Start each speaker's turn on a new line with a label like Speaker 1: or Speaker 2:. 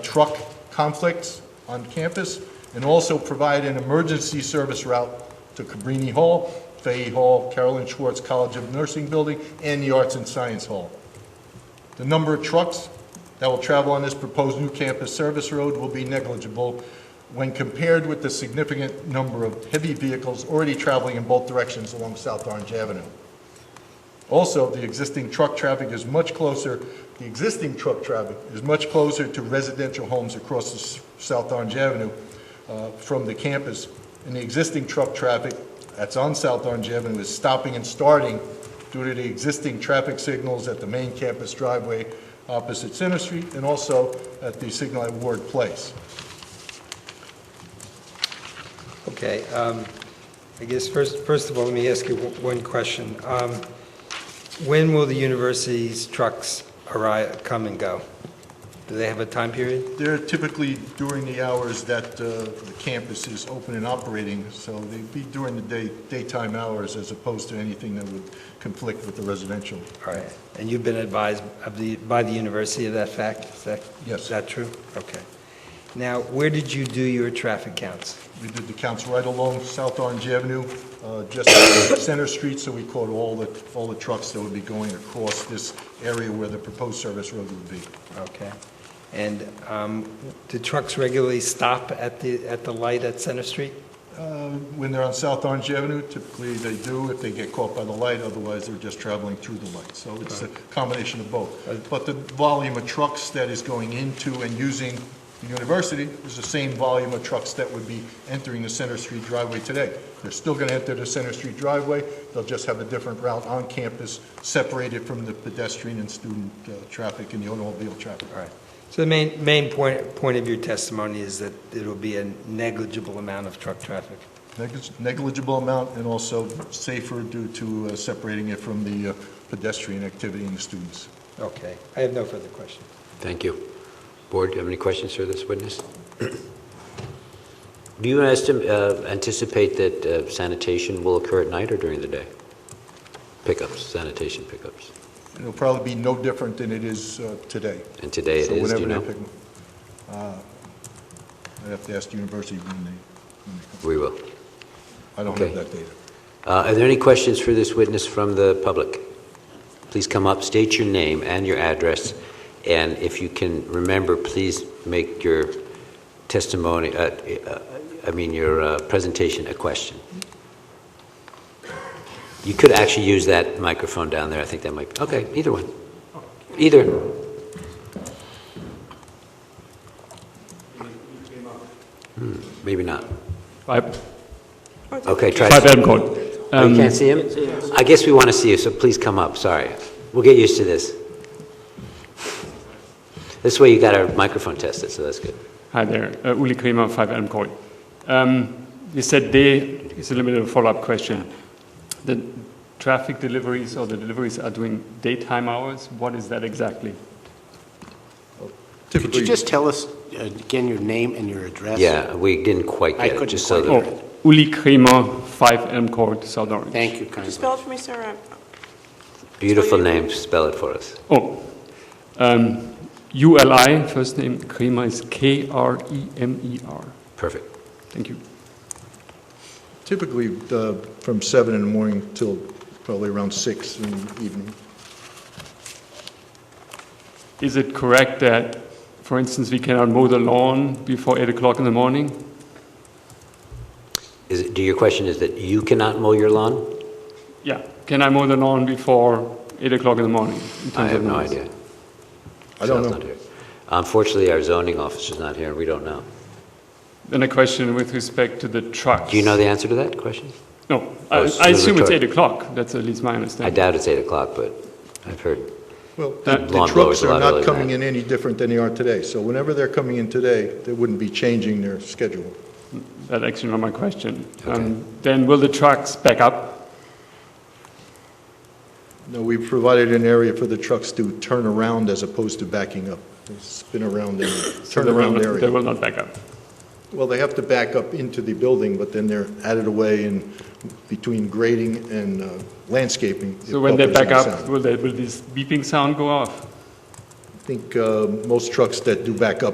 Speaker 1: truck conflicts on campus, and also provide an emergency service route to Cabrini Hall, Fahey Hall, Carolyn Schwartz College of Nursing Building, and the Arts and Science Hall. The number of trucks that will travel on this proposed new campus service road will be negligible when compared with the significant number of heavy vehicles already traveling in both directions along South Orange Avenue. Also, the existing truck traffic is much closer, the existing truck traffic is much closer to residential homes across the s- South Orange Avenue uh, from the campus. And the existing truck traffic that's on South Orange Avenue is stopping and starting due to the existing traffic signals at the main campus driveway opposite Center Street and also at the signal at Ward Place.
Speaker 2: Okay, um, I guess first, first of all, let me ask you o- one question. Um, When will the university's trucks arrive, come and go? Do they have a time period?
Speaker 1: They're typically during the hours that uh, the campus is open and operating, so they'd be during the day, daytime hours as opposed to anything that would conflict with the residential.
Speaker 2: All right, and you've been advised of the, by the university of that fact? Is that,
Speaker 1: Yes.
Speaker 2: is that true? Okay. Now, where did you do your traffic counts?
Speaker 1: We did the counts right along South Orange Avenue, uh, just off Center Street, so we caught all the, all the trucks that would be going across this area where the proposed service road would be.
Speaker 2: Okay. And um, do trucks regularly stop at the, at the light at Center Street?
Speaker 1: Uh, When they're on South Orange Avenue, typically they do if they get caught by the light, otherwise they're just traveling through the light. So it's a combination of both. But the volume of trucks that is going into and using the university is the same volume of trucks that would be entering the Center Street driveway today. They're still going to enter the Center Street driveway, they'll just have a different route on campus, separated from the pedestrian and student uh, traffic and the automobile traffic.
Speaker 2: All right. So the main, main point, point of your testimony is that it'll be a negligible amount of truck traffic.
Speaker 1: Neglig- Negligible amount and also safer due to uh, separating it from the uh, pedestrian activity and the students.
Speaker 2: Okay. I have no further questions.
Speaker 3: Thank you. Board, do you have any questions for this witness? Do you estim- uh, anticipate that uh, sanitation will occur at night or during the day? Pickups, sanitation pickups?
Speaker 1: It'll probably be no different than it is uh, today.
Speaker 3: And today it
Speaker 1: So
Speaker 3: is, do you
Speaker 1: whenever they
Speaker 3: know?
Speaker 1: pick 'em- uh, I'd have to ask the university when they, when they
Speaker 3: We will.
Speaker 1: come. I don't have
Speaker 3: Okay.
Speaker 1: that data.
Speaker 3: Uh, Are there any questions for this witness from the public? Please come up, state your name and your address, and if you can remember, please make your testimony, uh, uh, I mean, your uh, presentation a question. You could actually use that microphone down there, I think that might, okay, either one. Either. Hmm, Maybe not.
Speaker 4: Five,
Speaker 3: Okay, try.
Speaker 4: five Adam Court.
Speaker 3: Oh,
Speaker 4: Um,
Speaker 3: you can't see him? I guess we want to see you, so please come up, sorry. We'll get used to this. This way you got our microphone tested, so that's good.
Speaker 4: Hi there, uh, Uli Kremer, Five Adam Court. Um, you said they is a little bit of a follow-up question. The traffic deliveries or the deliveries are doing daytime hours. What is that exactly?
Speaker 5: Could you just tell us uh, again your name and your address?
Speaker 3: Yeah, we didn't quite
Speaker 5: I
Speaker 3: get it,
Speaker 5: couldn't
Speaker 3: just so
Speaker 5: quite
Speaker 3: that,
Speaker 5: hear
Speaker 4: Oh, Uli Kremer, Five Adam Court, South Orange.
Speaker 5: Thank you
Speaker 6: Could you
Speaker 5: kindly.
Speaker 6: spell it for me, sir? I'm-
Speaker 3: beautiful name, spell it for us.
Speaker 4: Oh, um, ULI first name Kremer is K R E M E R.
Speaker 3: Perfect.
Speaker 4: Thank you.
Speaker 1: Typically, uh, from seven in the morning till probably around six in the evening.
Speaker 4: Is it correct that, for instance, we cannot mow the lawn before eight o'clock in the morning?
Speaker 3: Is, it- do your question is that you cannot mow your lawn?
Speaker 4: Yeah. Can I mow the lawn before 8 o'clock in the morning? in
Speaker 3: I
Speaker 4: terms
Speaker 3: have
Speaker 4: of
Speaker 3: no
Speaker 4: noise?
Speaker 3: idea.
Speaker 1: I don't
Speaker 3: Sal's
Speaker 1: know.
Speaker 3: not here. Unfortunately, our zoning officer's not here, and we don't know.
Speaker 4: Then a question with respect to the trucks.
Speaker 3: Do you know the answer to that question?
Speaker 4: No.
Speaker 3: Oh,
Speaker 4: I,
Speaker 3: it's
Speaker 4: I assume it's
Speaker 3: rhetorical.
Speaker 4: 8 o'clock. That's at least my
Speaker 3: I
Speaker 4: understanding.
Speaker 3: doubt it's 8 o'clock, but I've heard.
Speaker 1: Well, the
Speaker 4: That-
Speaker 1: the
Speaker 3: Lawn
Speaker 1: trucks
Speaker 3: mowers are
Speaker 1: are
Speaker 3: allowed
Speaker 1: not
Speaker 3: early at
Speaker 1: coming
Speaker 3: night.
Speaker 1: in any different than they are today. So whenever they're coming in today, they wouldn't be changing their schedule.
Speaker 4: That's actually not my question.
Speaker 3: Okay.
Speaker 4: Um, then will the trucks back up?
Speaker 1: No, we provided an area for the trucks to turn around as opposed to backing up. They spin around and
Speaker 4: So
Speaker 1: turn
Speaker 4: they will
Speaker 1: around
Speaker 4: not- They
Speaker 1: area.
Speaker 4: will not back up.
Speaker 1: Well, they have to back up into the building, but then they're added away in between grading and uh, landscaping. it
Speaker 4: So when they
Speaker 1: buffers
Speaker 4: back
Speaker 1: the
Speaker 4: up,
Speaker 1: sound.
Speaker 4: will, they, will this beeping sound go off?
Speaker 1: I think uh, most trucks that do back up